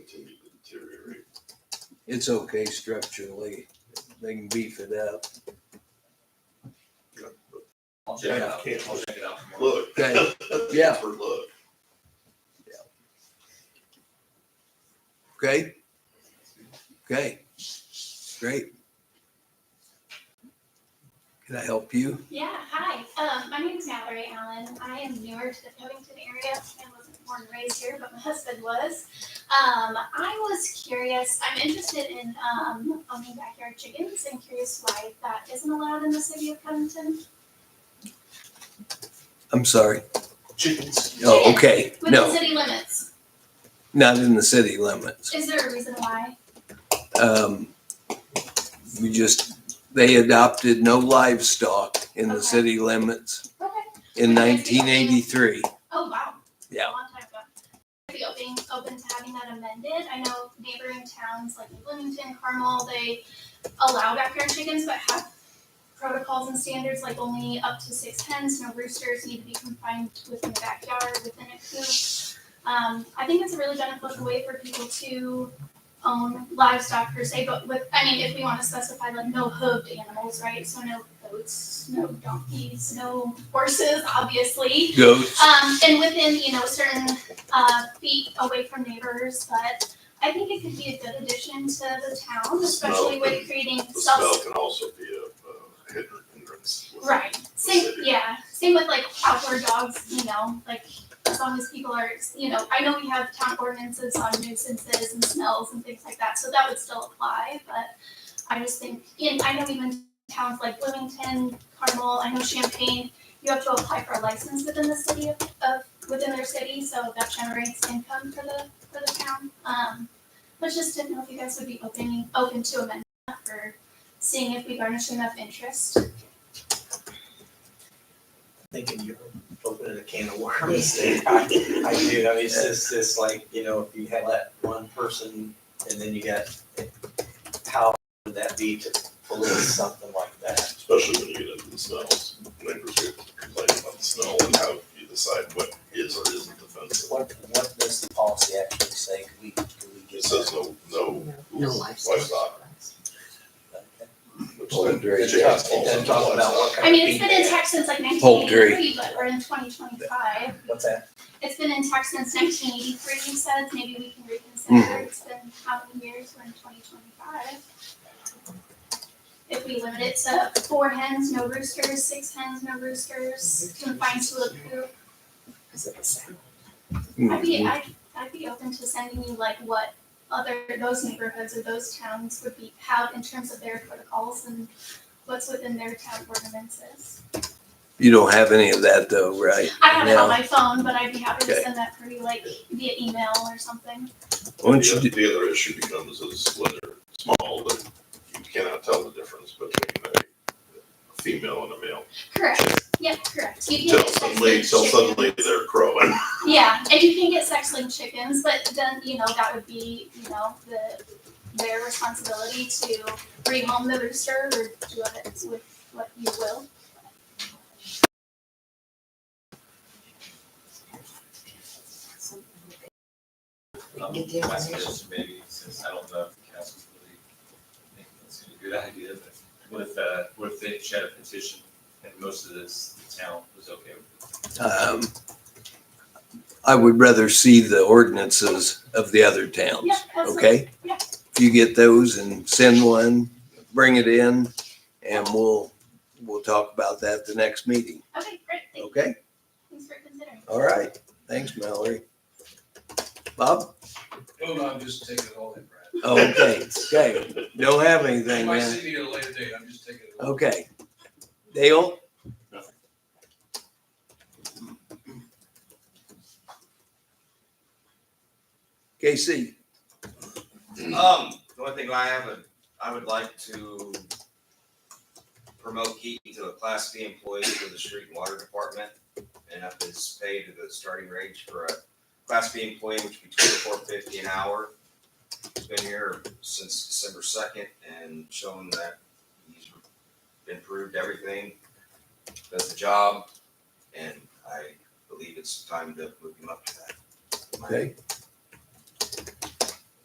It's okay structurally. They can beef it up. I'll check it Yeah. out. I'll check it out tomorrow. Look. Okay. Yeah. For look. Okay? Okay. Great. Can I help you? Yeah, hi. Um, my name is Mallory Allen. I am newer to the Covington area. I wasn't born and raised here, but my husband was. Um, I was curious. I'm interested in um, owning backyard chickens and curious why that isn't allowed in the city of Covington. I'm sorry. Chickens. Oh, okay. Within No, city limits. not in the city limits. Is there a reason why? Um, we just, they adopted no livestock in the Okay. city limits Okay. in 1983. Oh, wow. Yeah. A long time ago. I'd be open, open to having that amended. I know neighboring towns like Bloomington, Carmel, they allow backyard chickens, but have protocols and standards like only up to six hens, no roosters need to be confined within the backyard, within a coop. Um, I think it's a really beneficial way for people to own livestock per se, but with, I mean, if we want to specify like no hooved animals, right? So no goats, no donkeys, no horses, obviously. Goats. Um, and within, you know, certain, uh, feet away from neighbors, but I think it could be a good addition to the town, especially with creating The smell self. can also be a, uh, hindrance. with- Right, same, yeah, same with like outdoor dogs, you know, like as long as people are, you know, I know we have town ordinances on nuisances and smells and things like that, so that would still apply, but I just think, and I know even towns like Bloomington, Carmel, I know Champaign, you have to apply for a license within the city of, of, within their city, so that generates income for the, for the town. Um, but just didn't know if you guys would be opening, open to amendment or seeing if we garnish enough interest. Thinking you're opening a can of worms. I I do, I mean, it's just, it's like, you know, if you had that one person and then you got, how would that be to police something like that? Especially when you get into the smells. Neighbors get complaining about the smell and how you decide what is or isn't offensive. What, what does the policy actually say? Do we, do we It get says no, no livestock. that? which Well, then great. chickens It falls doesn't talk under about what livestock. kind of. I mean, it's feed been they in have. text since like nineteen Poultry. eighty-three, but we're in twenty twenty-five. What's that? It's been in text since nineteen eighty-three, you said, maybe we can reconsider, it's been how many years, we're in twenty twenty-five. If we limit it to four hens, no roosters, six hens, no roosters, confined to a coop, I'd Hmm. be, I'd, I'd be open to sending you like what other, those neighborhoods or those towns would be, have in terms of their protocols and what's within their town ordinances. You don't have any of that though, right? I have it No. on my phone, but I'd be happy to Okay. send that for you, like via email or something. Why don't you The the other issue becomes is when they're small, that you cannot tell the difference between a female and a male. Correct, yeah, correct. You can Till get sex suddenly, linked till suddenly chickens. they're crowing. Yeah, and you can get sex linked chickens, but then, you know, that would be, you know, the, their responsibility to bring home the rooster or do it with what you will. Um, My suggestion maybe, since I don't know if the council's really thinking it's a good idea, but what if, uh, what if they just had a petition and most of this town was okay with Um, I would rather see the ordinances of the other towns, Yeah, absolutely. okay? Yeah. If you get those and send one, bring it in, and we'll, we'll talk about that the next meeting, Okay, great, Thank- okay? thanks for considering. All right, thanks, Mallory. Bob? No, no, I'm just taking it all in, Brad. Oh, Okay, okay, don't have You anything, might man. see me at a later date, I'm just taking it all. Okay. Dale? Nothing. KC, Um, the only thing I have, a- I would like to promote Keaton to a class B employee for the street and water department. And up his pay to the starting range for a class B employee, which would be twenty-four fifty an hour. He's been here since December second and shown that he's improved everything, does the job. And I believe it's time to move him up to that. okay.